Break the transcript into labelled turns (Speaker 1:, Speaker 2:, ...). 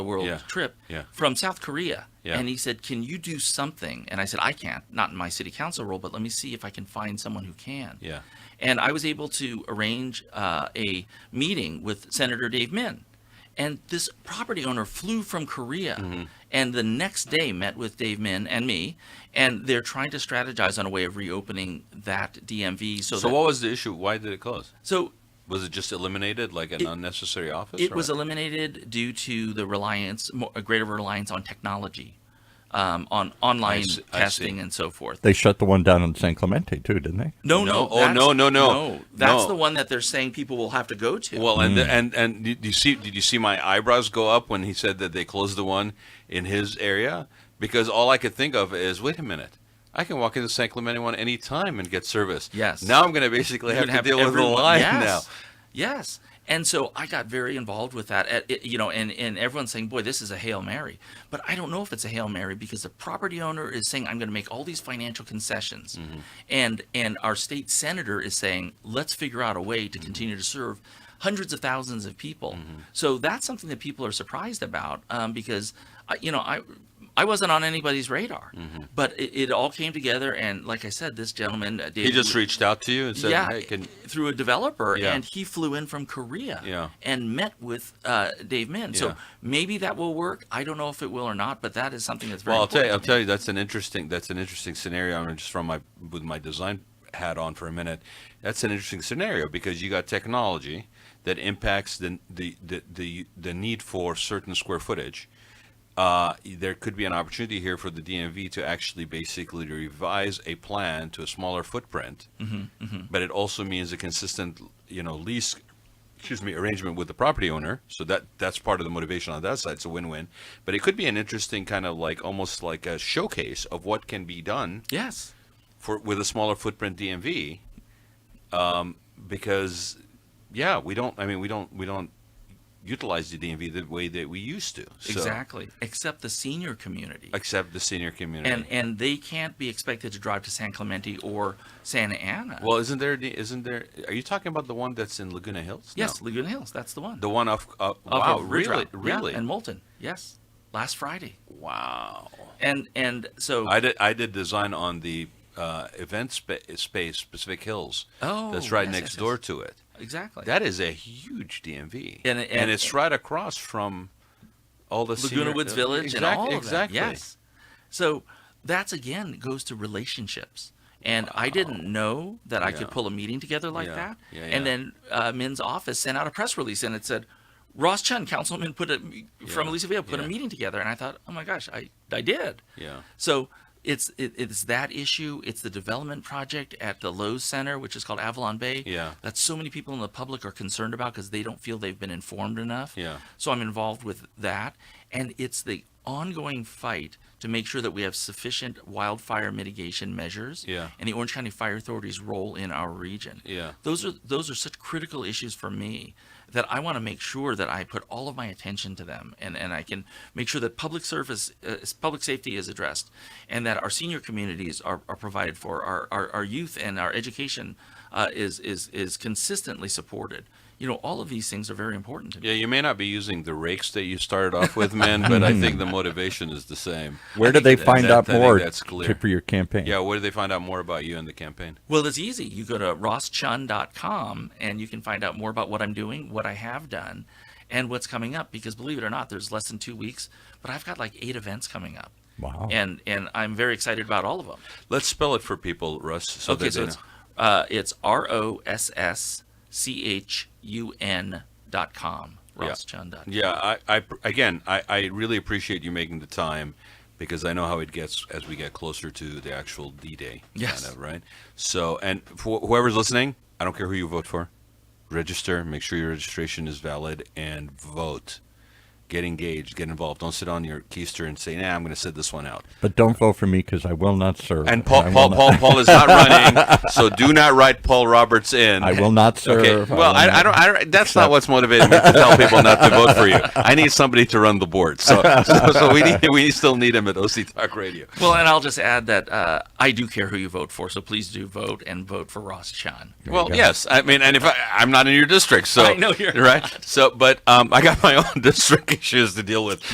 Speaker 1: world
Speaker 2: Yeah.
Speaker 1: trip
Speaker 2: Yeah.
Speaker 1: from South Korea.
Speaker 2: Yeah.
Speaker 1: And he said, Can you do something? And I said, I can't, not in my city council role, but let me see if I can find someone who can.
Speaker 2: Yeah.
Speaker 1: And I was able to arrange uh, a meeting with Senator Dave Min. And this property owner flew from Korea
Speaker 2: Mm-hmm.
Speaker 1: and the next day met with Dave Min and me. And they're trying to strategize on a way of reopening that DMV. So,
Speaker 2: So
Speaker 1: that-
Speaker 2: what was the issue? Why did it close?
Speaker 1: so
Speaker 2: Was it just eliminated, like an unnecessary office?
Speaker 1: It
Speaker 2: or
Speaker 1: was
Speaker 2: what?
Speaker 1: eliminated due to the reliance, mo- a greater reliance on technology, um, on online
Speaker 2: see- I see.
Speaker 1: testing and so forth.
Speaker 3: They shut the one down in San Clemente too, didn't they?
Speaker 1: No,
Speaker 2: No,
Speaker 1: no,
Speaker 2: oh,
Speaker 1: that's-
Speaker 2: no, no, no,
Speaker 1: That's
Speaker 2: no.
Speaker 1: the one that they're saying people will have to go to.
Speaker 2: Well, and the- and and did you see? Did you see my eyebrows go up when he said that they closed the one in his area? Because all I could think of is, wait a minute, I can walk into San Clemente one any time and get service.
Speaker 1: Yes.
Speaker 2: Now I'm going to basically
Speaker 1: You
Speaker 2: have to
Speaker 1: would
Speaker 2: deal with the
Speaker 1: everyone-
Speaker 2: line
Speaker 1: yes,
Speaker 2: now.
Speaker 1: Yes. And so I got very involved with that, at, it- you know, and, and everyone's saying, boy, this is a Hail Mary. But I don't know if it's a Hail Mary because the property owner is saying, I'm going to make all these financial concessions.
Speaker 2: Mm-hmm.
Speaker 1: And, and our state senator is saying, let's figure out a way
Speaker 2: Mm-hmm.
Speaker 1: to continue to serve hundreds of thousands of people. So that's something that people are surprised about um, because, I- you know, I, I wasn't on anybody's radar.
Speaker 2: Mm-hmm.
Speaker 1: But it, it all came together. And like I said, this gentleman, uh,
Speaker 2: He
Speaker 1: David
Speaker 2: just reached out to you and said,
Speaker 1: yeah,
Speaker 2: hey, can
Speaker 1: through a developer,
Speaker 2: Yeah.
Speaker 1: and he flew in from Korea
Speaker 2: Yeah.
Speaker 1: and met with uh, Dave Min.
Speaker 2: Yeah.
Speaker 1: So maybe that will work. I don't know if it will or not, but that is something that's very.
Speaker 2: Well, I'll tell you, I'll
Speaker 1: important to
Speaker 2: tell you, that's an interesting, that's an interesting scenario. I'm gonna just from my with my design hat on for a minute. That's an interesting scenario because you got technology that impacts the the the the, the need for certain square footage. Uh, there could be an opportunity here for the DMV to actually basically revise a plan to a smaller footprint, but it also means a consistent, you know, lease excuse me, arrangement with the property owner. So that that's part of the motivation on that side. It's a win-win. But it could be an interesting kind of like almost like a showcase of what can be done
Speaker 1: me. Yes.
Speaker 2: for with a smaller footprint DMV. Um, because yeah, we don't. I mean, we don't. We don't utilize the DMV the way that we used to. So-
Speaker 1: Exactly. Except the senior community.
Speaker 2: Except the senior community.
Speaker 1: and and they can't be expected to drive to San Clemente or Santa Ana.
Speaker 2: well, isn't there? Isn't there? Are you talking about the one that's in Laguna Hills? No.
Speaker 1: yes, Laguna Hills. That's the one.
Speaker 2: The one off. Uh,
Speaker 1: Off
Speaker 2: wow,
Speaker 1: of Ridge
Speaker 2: really,
Speaker 1: Route. Yeah,
Speaker 2: really.
Speaker 1: and Moulton. Yes, last Friday.
Speaker 2: wow.
Speaker 1: And and so
Speaker 2: I did. I did design on the uh, event spa- space, Pacific Hills.
Speaker 1: Oh,
Speaker 2: that's right
Speaker 1: yes,
Speaker 2: next
Speaker 1: yes,
Speaker 2: door
Speaker 1: yes.
Speaker 2: to it.
Speaker 1: exactly.
Speaker 2: That is a huge DMV,
Speaker 1: And- and-
Speaker 2: it's right across from all the
Speaker 1: Laguna
Speaker 2: senior- uh,
Speaker 1: Woods Village and
Speaker 2: Exact-
Speaker 1: all of
Speaker 2: exactly.
Speaker 1: that. Yes. So that's again goes to relationships. And I didn't know that I
Speaker 2: Yeah.
Speaker 1: could pull a meeting together like
Speaker 2: Yeah.
Speaker 1: that.
Speaker 2: Yeah, yeah.
Speaker 1: And then uh, Men's office sent out a press release and it said, Ross Chun, councilman, put a from
Speaker 2: Yeah.
Speaker 1: Elisa Villa, put
Speaker 2: Yeah.
Speaker 1: a meeting together. And I thought, oh my gosh, I I did.
Speaker 2: Yeah.
Speaker 1: So it's it, it's that issue. It's the development project at the Lowe's Center, which is called Avalon Bay.
Speaker 2: Yeah.
Speaker 1: That so many people in the public are concerned about because they don't feel they've been informed enough.
Speaker 2: Yeah.
Speaker 1: So I'm involved with that, and it's the ongoing fight to make sure that we have sufficient wildfire mitigation measures.
Speaker 2: Yeah.
Speaker 1: And the Orange County Fire Authority's role in our region.
Speaker 2: Yeah.
Speaker 1: Those are those are such critical issues for me that I want to make sure that I put all of my attention to them, and and I can make sure that public service, uh, public safety is addressed, and that our senior communities are, are provided for, our, our our youth and our education uh, is is is consistently supported. You know, all of these things are very important to me.
Speaker 2: Yeah, you may not be using the rakes that you started off with, man, but I think the motivation is the same.
Speaker 3: Where do they
Speaker 2: that-
Speaker 3: find
Speaker 2: that-
Speaker 3: out
Speaker 2: I think
Speaker 3: more
Speaker 2: that's clear.
Speaker 3: to- for your campaign?
Speaker 2: Yeah, where do they find out more about you and the campaign?
Speaker 1: Well, it's easy. You go to rosschun.com and you can find out more about what I'm doing, what I have done, and what's coming up. Because believe it or not, there's less than two weeks, but I've got like eight events coming up.
Speaker 3: Wow.
Speaker 1: And and I'm very excited about all of them.
Speaker 2: Let's spell it for people, Russ. So
Speaker 1: okay,
Speaker 2: that
Speaker 1: so
Speaker 2: they
Speaker 1: it's
Speaker 2: know.
Speaker 1: uh, it's R O S S C H U N dot com.
Speaker 2: Yeah.
Speaker 1: Rosschun.com.
Speaker 2: Yeah, I, I again, I, I really appreciate you making the time because I know how it gets as we get closer to the actual D Day.
Speaker 1: Yes.
Speaker 2: Kind of, right. So, and for whoever's listening, I don't care who you vote for, register. Make sure your registration is valid and vote. Get engaged. Get involved. Don't sit on your keister and say, "Nah, I'm going to sit this one out."
Speaker 3: But don't vote for me because I will not serve.
Speaker 2: And Paul,
Speaker 3: I will
Speaker 2: Paul,
Speaker 3: not-
Speaker 2: Paul, Paul is not running, so do not write Paul Roberts in.
Speaker 3: I will not serve.
Speaker 2: Okay. Well,
Speaker 3: will
Speaker 2: I, I
Speaker 3: not-
Speaker 2: don't. I don't that's not what's motivating me to tell people not to vote for you. I need somebody to run the board. So, so, so we need. We still need him at OC Talk Radio.
Speaker 1: Well, and I'll just add that uh, I do care who you vote for, so please do vote and vote for Ross Chun.
Speaker 2: Well,
Speaker 3: go.
Speaker 2: yes. I mean, and if I, I'm not in your district, so
Speaker 1: I know you're
Speaker 2: right. So, but um, I got my own district issues to deal with.